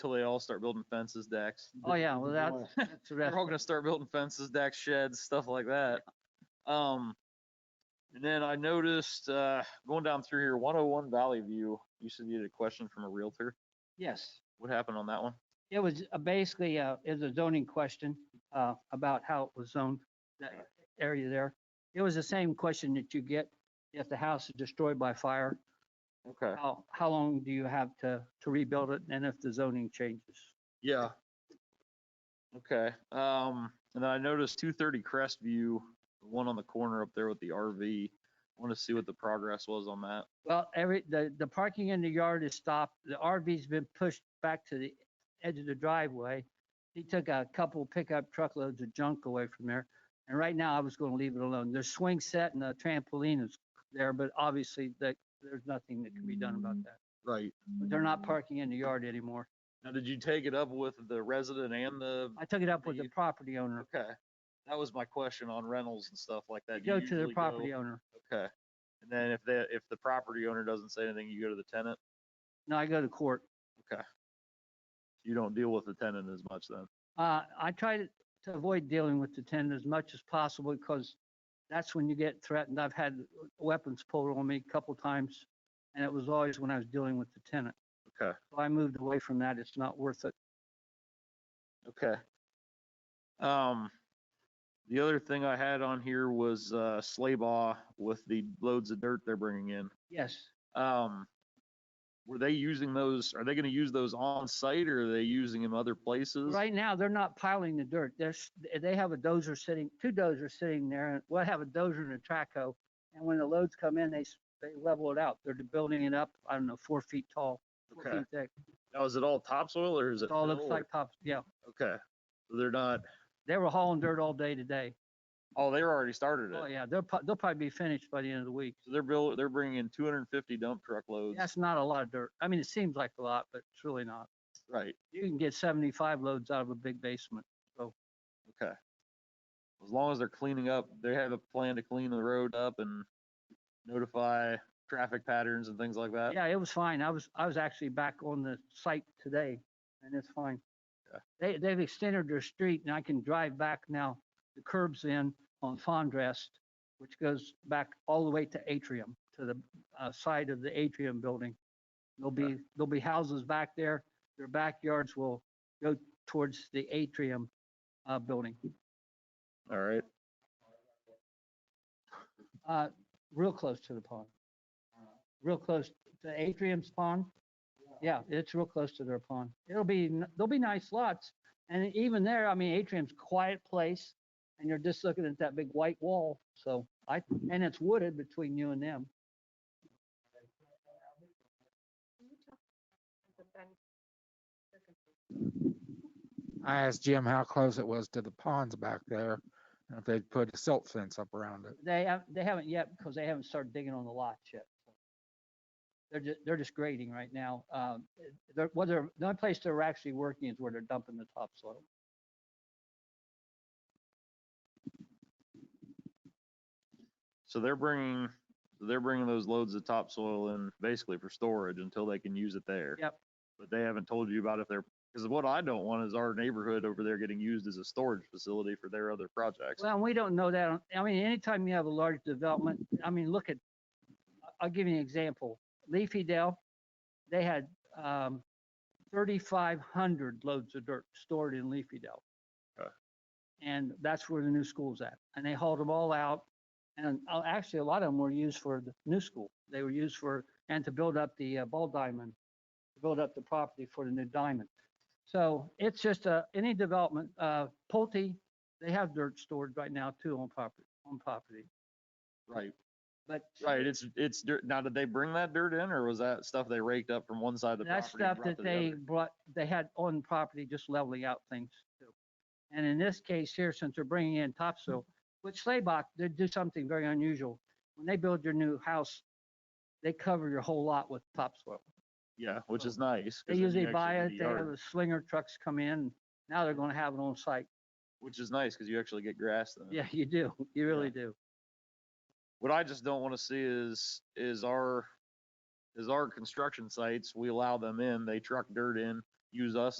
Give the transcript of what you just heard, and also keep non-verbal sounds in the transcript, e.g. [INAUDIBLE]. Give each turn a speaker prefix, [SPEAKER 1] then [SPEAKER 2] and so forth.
[SPEAKER 1] till they all start building fences, decks.
[SPEAKER 2] Oh, yeah, well, that's, [LAUGHS] that's the
[SPEAKER 1] They're all
[SPEAKER 2] rest.
[SPEAKER 1] gonna start building fences, decks, sheds, stuff like that. Um, and then I noticed, uh, going down through here, one oh one Valley View, you said you had a question from a Realtor.
[SPEAKER 2] Yes.
[SPEAKER 1] What happened on that one?
[SPEAKER 2] It was uh, basically, uh, it was a zoning question, uh, about how it was zoned, that area there. It was the same question that you get if the house is destroyed by fire.
[SPEAKER 1] Okay.
[SPEAKER 2] How, how long do you have to, to rebuild it and if the zoning changes?
[SPEAKER 1] Yeah. Okay, um, and then I noticed two thirty Crestview, the one on the corner up there with the RV. Want to see what the progress was on that.
[SPEAKER 2] Well, every, the, the parking in the yard is stopped. The RV's been pushed back to the edge of the driveway. He took a couple pickup truckloads of junk away from there. And right now, I was gonna leave it alone. There's swing set and a trampoline is there, but obviously that, there's nothing that can be done about that.
[SPEAKER 1] Right.
[SPEAKER 2] But They're not parking in the yard anymore.
[SPEAKER 1] Now, did you take it up with the resident and the,
[SPEAKER 2] I took it up with the property owner.
[SPEAKER 1] okay, that was my question on rentals and stuff like that. Do
[SPEAKER 2] Go
[SPEAKER 1] you
[SPEAKER 2] to the
[SPEAKER 1] usually go-
[SPEAKER 2] property owner.
[SPEAKER 1] Okay, and then if the, if the property owner doesn't say anything, you go to the tenant?
[SPEAKER 2] No, I go to court.
[SPEAKER 1] You don't deal with the tenant as much then?
[SPEAKER 2] Uh, I try to to avoid dealing with the tenant as much as possible because that's when you get threatened. I've had weapons pulled on me a couple times and it was always when I was dealing with the tenant.
[SPEAKER 1] Okay.
[SPEAKER 2] So I moved away from that. It's not worth it.
[SPEAKER 1] Okay. Um, the other thing I had on here was, uh, Slaybaugh with the loads of dirt they're bringing in.
[SPEAKER 2] Yes.
[SPEAKER 1] Um, were they using those, are they gonna use those on site or are they using them other places?
[SPEAKER 2] Right now, they're not piling the dirt. There's, they have a dozer sitting, two dozers sitting there. and Well, I have a dozer and a traco. And when the loads come in, they, s- they level it out. They're building it up, I don't know, four feet tall, four
[SPEAKER 1] Okay.
[SPEAKER 2] feet thick.
[SPEAKER 1] Now, is it all topsoil or is it?
[SPEAKER 2] It all looks
[SPEAKER 1] fill,
[SPEAKER 2] like tops. Yeah.
[SPEAKER 1] or- Okay, so they're not,
[SPEAKER 2] They were hauling dirt all day today.
[SPEAKER 1] oh, they already started
[SPEAKER 2] Oh,
[SPEAKER 1] it.
[SPEAKER 2] yeah, they'll, prob- they'll probably be finished by the end of the week.
[SPEAKER 1] So they're build, they're bringing in two hundred and fifty dump truck loads.
[SPEAKER 2] That's not a lot of dirt. I mean, it seems like a lot, but it's really not.
[SPEAKER 1] Right,
[SPEAKER 2] You can get 75 loads out of a big basement.
[SPEAKER 1] okay. As long as they're cleaning up, they have a plan to clean the road up and notify traffic patterns and things like that?
[SPEAKER 2] Yeah, it was fine. I was, I was actually back on the site today and it's fine.
[SPEAKER 1] Okay.
[SPEAKER 2] They, they've extended their street and I can drive back now. The curb's in on Fondrest, which goes back all the way to Atrium, to the uh, side of the Atrium building. There'll
[SPEAKER 1] Okay.
[SPEAKER 2] be, there'll be houses back there. Their backyards will go towards the Atrium uh, building.
[SPEAKER 1] All right,
[SPEAKER 2] Uh, real close to the pond. Real close to Atrium's pond. Yeah, it's real close to their pond. It'll be, n- there'll be nice lots. And even there, I mean, Atrium's quiet place and you're just looking at that big white wall. So I, and it's wooded between you and them.
[SPEAKER 3] I asked Jim how close it was to the ponds back there, and if they'd put a silt fence up around it.
[SPEAKER 2] They, have- they haven't yet because they haven't started digging on the lots yet. They're just, they're just grading right now. Um, they're, what they're, the only place they're actually working is where they're dumping the topsoil.
[SPEAKER 1] so they're bringing, they're bringing those loads of topsoil in basically for storage until they can use it there.
[SPEAKER 2] Yep.
[SPEAKER 1] But they haven't told you about if they're, because what I don't want is our neighborhood over there getting used as a storage facility for their other projects.
[SPEAKER 2] Well, we don't know that. on- I mean, anytime you have a large development, I mean, look at, I- I'll give you an example. Leafy Dell, they had um, 3,500 loads of dirt stored in Leafy Dell.
[SPEAKER 1] Okay.
[SPEAKER 2] And that's where the new school's at. And they hauled them all out. And uh, actually, a lot of them were used for the new school. They were used for, and to build up the uh, ball diamond, to build up the property for the new diamond. So it's just uh, any development, uh, Pulte, they have dirt stored right now too on property, on property,
[SPEAKER 1] Right,
[SPEAKER 2] but.
[SPEAKER 1] right, it's, it's, dirt. now, did they bring that dirt in or was that stuff they raked up from one side of the
[SPEAKER 2] That
[SPEAKER 1] property? and
[SPEAKER 2] stuff
[SPEAKER 1] brought to
[SPEAKER 2] that
[SPEAKER 1] the
[SPEAKER 2] they
[SPEAKER 1] other?
[SPEAKER 2] brought, they had on property, just leveling out things too. And in this case here, since they're bringing in topsoil, which Slaybach, they do something very unusual. When they build your new house, they cover your whole lot with topsoil.
[SPEAKER 1] Yeah, which is nice. 'cause
[SPEAKER 2] They
[SPEAKER 1] then you
[SPEAKER 2] usually
[SPEAKER 1] actually
[SPEAKER 2] buy
[SPEAKER 1] get
[SPEAKER 2] it,
[SPEAKER 1] the
[SPEAKER 2] they have
[SPEAKER 1] yard,
[SPEAKER 2] the slinger trucks come in, now they're gonna have it on site.
[SPEAKER 1] Which is nice because you actually get grass then.
[SPEAKER 2] Yeah, you do, you really do.
[SPEAKER 1] What I just don't want to see is, is our, is our construction sites, we allow them in, they truck dirt in, use us